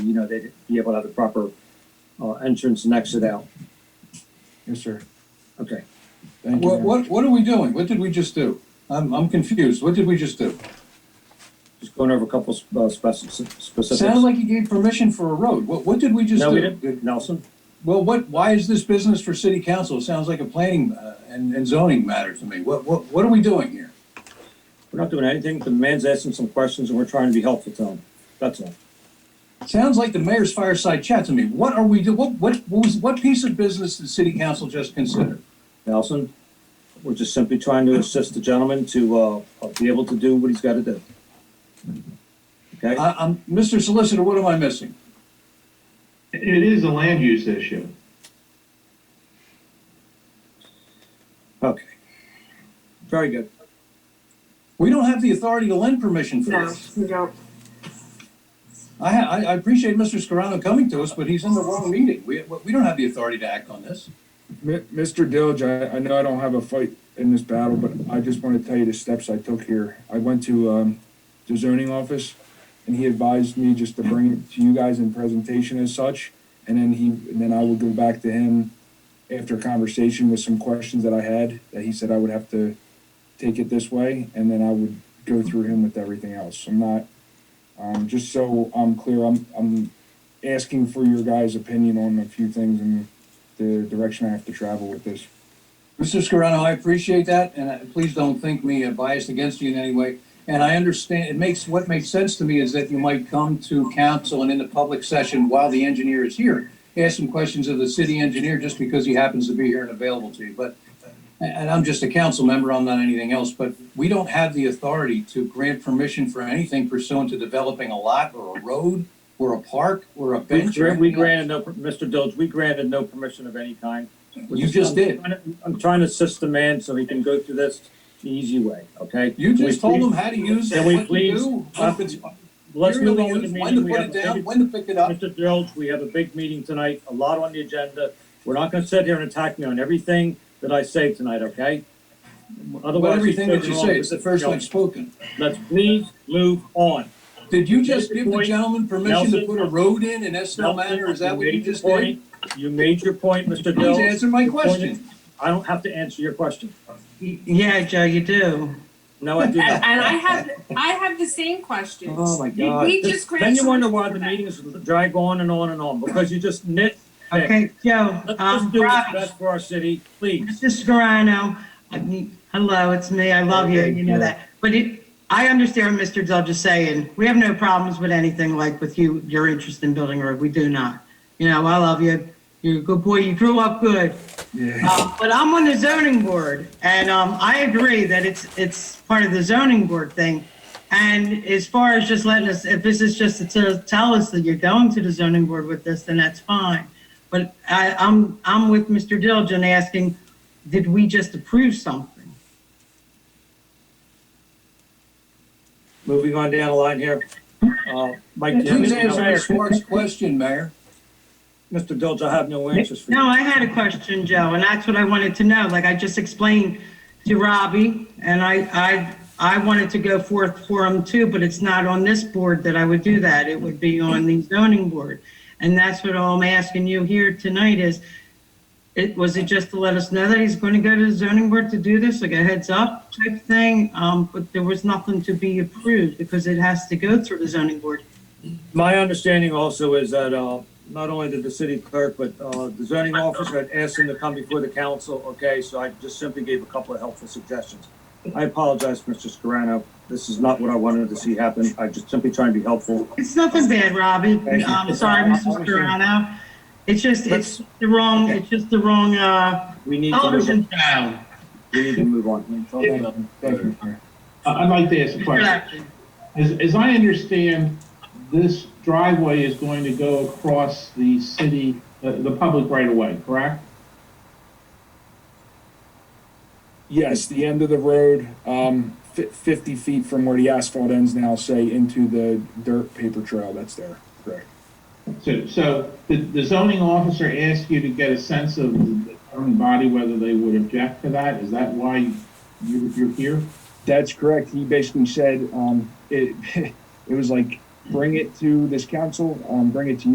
you know, they'd be able to have the proper uh, entrance and exit out. Yes, sir. Okay. Thank you. What, Mayor. what, what are we doing? What did we just do? I'm, I'm confused. What did we just do? Just going over a couple sp- uh, speci- specifics. Sounded like you gave permission for a road. What, what did we just No, we do? didn't, Nelson. Well, what, why is this business for city council? It sounds like a planning uh, and and zoning matter to me. What, what, what are we doing here? We're not doing anything. The man's asking some questions and we're trying to be helpful to him. That's all. Sounds like the mayor's fireside chat to me. What are we do, what, what, what was, what piece of business did city council just consider? Nelson, we're just simply trying to assist the gentleman to uh, uh, be able to do what he's got to do. Okay? I, I'm, Mr. Solicitor, what am I missing? It is a land use issue. Okay. Very good. We don't have the authority to lend permission for No, this. we don't. I, I, I appreciate Mr. Scarano coming to us, but he's in the wrong meeting. We, we don't have the authority to act on this. Mi- Mr. Dilge, I, I know I don't have a fight in this battle, but I just want to tell you the steps I took here. I went to, um, the zoning office and he advised me just to bring it to you guys in presentation as such. And then he, and then I will go back to him after conversation with some questions that I had, that he said I would have to take it this way, and then I would go through him with everything else. I'm not, um, just so I'm clear, I'm, I'm asking for your guys' opinion on a few things and the direction I have to travel with this. Mr. Scarano, I appreciate that, and uh, please don't think me uh, biased against you in any way. And I understand, it makes, what makes sense to me is that you might come to council and in the public session while the engineer is here, ask some questions of the city engineer just because he happens to be here and available to you. But, and- and I'm just a council member, I'm not anything else, but we don't have the authority to grant permission for anything pursuant to developing a lot or a road or a park or a We bench. or gra- we anything else. granted no, per- Mr. Dilge, we granted no permission of any kind. We're You just I'm did. trying to- I'm trying to assist the man so he can go through this the easy way, okay? You Can we just told please- him how to use it, Can we what to please- do, uh, what it's Let's Here move we on with use, the When to meeting. We put have it a down, big- when to pick it up. Mr. Dilge, we have a big meeting tonight, a lot on the agenda. We're not gonna sit here and attack me on everything that I say tonight, okay? About Otherwise, everything we're that you going say, on it's the with first Dilge. one spoken. Let's please move on. Did you just give the Point. gentleman permission to Nelson. put a road in in Estill Manor? Is that what you made your just did? point. You made your point, Mr. Please Dilge. answer my Your point question. is- I don't have to answer your question. Y- Yeah, Joe, you do. No, I do And, not. and I have, I have the same questions. Oh, my We- God. We just Then granted. you wonder why the meetings drag on and on and on, because you just nit. Okay, Joe, Let's um, just do what's Robbie, best for our city, please. Mr. Scarano, I need- hello, it's me, I love you, you know that. But it, I understand what Mr. Dilge is saying. We have no problems with anything like with you, your interest in building a road, we do not. You know, I love you, you're a good boy, you grew up good. Yeah. Um, But I'm on the zoning board, and um, I agree that it's, it's part of the zoning board thing. And as far as just letting us, if this is just to tell- tell us that you're going to the zoning board with this, then that's fine. But I, I'm, I'm with Mr. Diligent asking, did we just approve something? Moving on down the line here. Uh, Mike, do you have Please anything answer else? Smart's question, Mayor. Mr. Dilge, I have no answers for you. No, I had a question, Joe, and that's what I wanted to know. Like I just explained to Robbie, and I, I, I wanted to go forth for him too, but it's not on this board that I would do that. It would be on the zoning board. And that's what all I'm asking you here tonight is, it, was it just to let us know that he's going to go to the zoning board to do this, like a heads up type thing? Um, but there was nothing to be approved because it has to go through the zoning board. My understanding also is that, uh, not only did the city clerk, but, uh, the zoning officer had asked him to come before the council, okay? So I just simply gave a couple of helpful suggestions. I apologize, Mr. Scarano. This is not what I wanted to see happen. I'm just simply trying to be helpful. It's nothing bad, Robbie. Thank you. I'm sorry, Mrs. Serrano. It's just, it's the wrong, it's just the wrong, uh, We need Oh, to move, on. television show. we need to move on. Thank you. Thank you. Mayor. I- I'd like to ask a question. production. As, as I understand, this driveway is going to go across the city, the, the public right of way, correct? Yes, the end of the road, um, fi- fifty feet from where the asphalt ends now, say into the dirt paper trail that's there, correct? So, so the, the zoning officer asked you to get a sense of the governing body, whether they would object to that? Is that why you, you're here? That's correct. He basically said, um, it, it was like, bring it to this council, um, bring it to you.